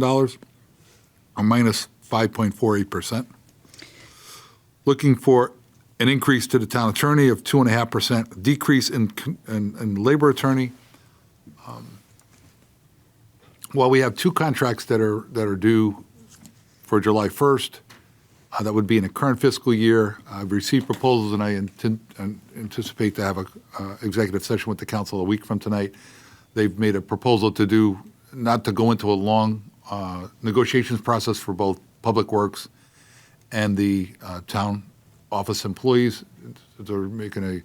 dollars, or minus 5.48%. Looking for an increase to the town attorney of 2.5%, decrease in, con- in in labor attorney. Um, While we have two contracts that are, that are due for July 1st, uh, that would be in the current fiscal year. I've received proposals, and I inten- and anticipate to have an executive session with the council a week from tonight. They've made a proposal to do, not to go into a long uh, negotiations process for both Public Works and the uh, town office employees. They're making a,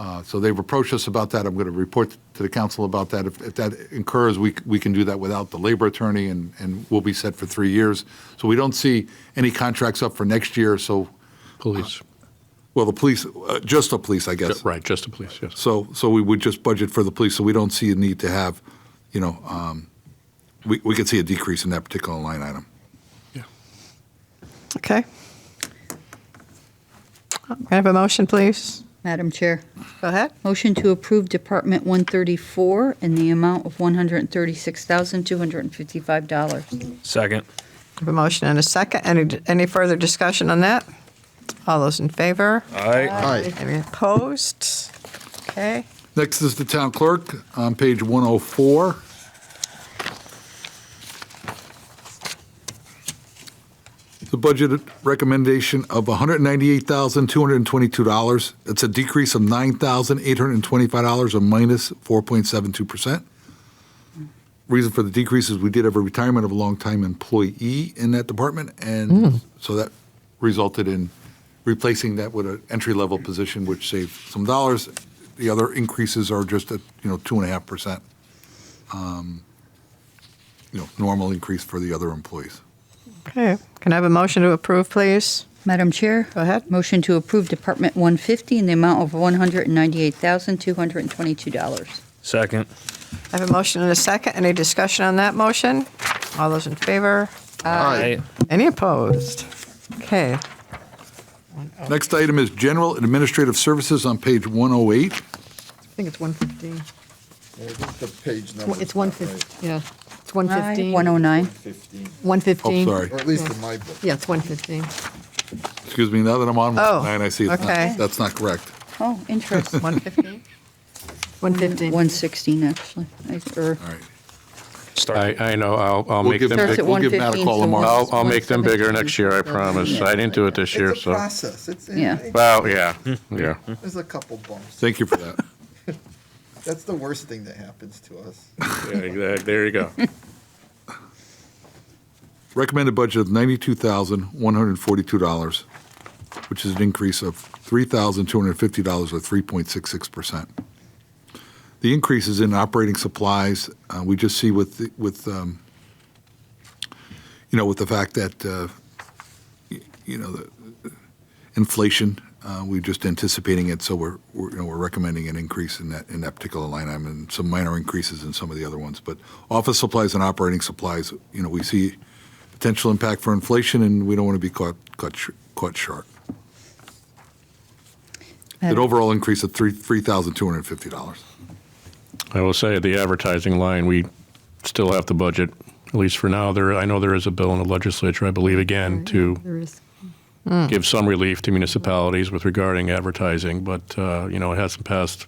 uh, so they've approached us about that. I'm going to report to the council about that. If if that incurs, we c- we can do that without the labor attorney, and and we'll be set for three years. So we don't see any contracts up for next year, so, Police, well, the police, uh, just the police, I guess. right, just the police, yes. So, so we would just budget for the police, so we don't see a need to have, you know, um, we we could see a decrease in that particular line item. Yeah. Okay. Can I have a motion, please? Madam Chair, Go ahead. motion to approve Department 134 in the amount of $136,255. Second. I have a motion and a second. Any, any further discussion on that? All those in favor? Aye. Any opposed? Okay. Next is the town clerk on page 104. The budget recommendation of $198,222. It's a decrease of $9,825 or minus 4.72%. Reason for the decrease is we did have a retirement of a longtime employee in that department, and so that resulted in replacing that with an entry-level position, which saved some dollars. The other increases are just at, you know, 2.5%, um, you know, normal increase for the other employees. Okay. Can I have a motion to approve, please? Madam Chair, Go ahead. motion to approve Department 150 in the amount of $198,222. Second. I have a motion and a second. Any discussion on that motion? All those in favor? Aye. Any opposed? Okay. Next item is general and administrative services on page 108. I think it's 115. Yeah, I think the page It's number. one- It's 115, yeah. It's 115. 109. 115. 115, Oh, sorry. or at least in my book. Yeah, it's 115. Excuse me, now that I'm on Oh, 109, I see it's okay. not, that's not correct. Oh, interesting. 115? 115. 116, actually. I- er, or- All right. I, I know, I'll, I'll We'll make give them, Thursday- Starts we'll big- at give Matt a 115. call so tomorrow. I'll, I'll make them bigger 117. next year, I promise. I didn't do it this year, It's a so. process. It's, Yeah. it- Well, yeah, yeah. there's a couple bumps. Thank you for that. That's the worst thing that happens to us. There you go. Recommended budget of $92,142, which is an increase of $3,250 or 3.66%. The increase is in operating supplies. Uh, We just see with, the- with, um, you know, with the fact that, uh, y- you know, the uh, inflation, uh, we're just anticipating it, so we're, we're, you know, we're recommending an increase in that, in that particular line item and some minor increases in some of the other ones. But office supplies and operating supplies, you know, we see potential impact for inflation, and we don't want to be caught, caught, sh- caught short. An overall increase of three, $3,250. I will say, the advertising line, we still have the budget, at least for now. There, I know there is a bill in the legislature, I believe, again, to Hmm. There is. give some relief to municipalities with regarding advertising, but, uh, you know, it hasn't passed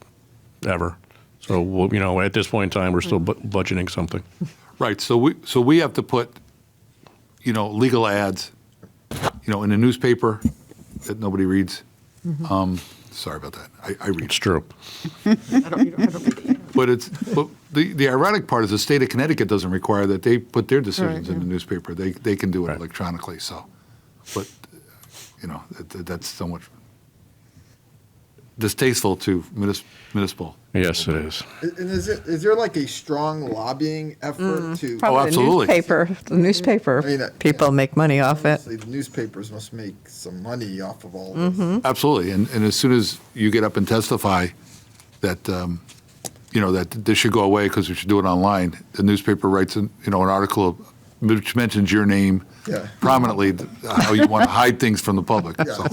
ever. So, we'll- you know, at this point in time, we're still bu- budgeting something. Right, so we, so we have to put, you know, legal ads, you know, in a newspaper that nobody reads. Um, Sorry about that, I, I read. It's true. I don't, you don't- I don't read it. But it's, but the, the ironic part is the state of Connecticut doesn't require that they put their decisions in the newspaper. They, they can do it Right. electronically, so. But, you know, that, that's somewhat distasteful to munis- municipal. Yes, it is. And and is it, is there like a strong lobbying effort to? Oh, absolutely. The newspaper, the I mean, uh, newspaper, people make money off it. Obviously, the newspapers must make some money off of all Mm-hmm. this. Absolutely, and, and as soon as you get up and testify that, um, you know, that this should go away because we should do it online, the newspaper writes, an- you know, an article which mentions your name Yeah. prominently, th- how you want to hide things from the public, so.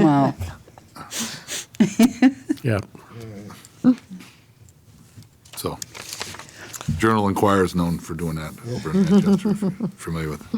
Wow. Yeah. So, Journal Enquirer is known for doing that over in Manchester, if you're familiar with.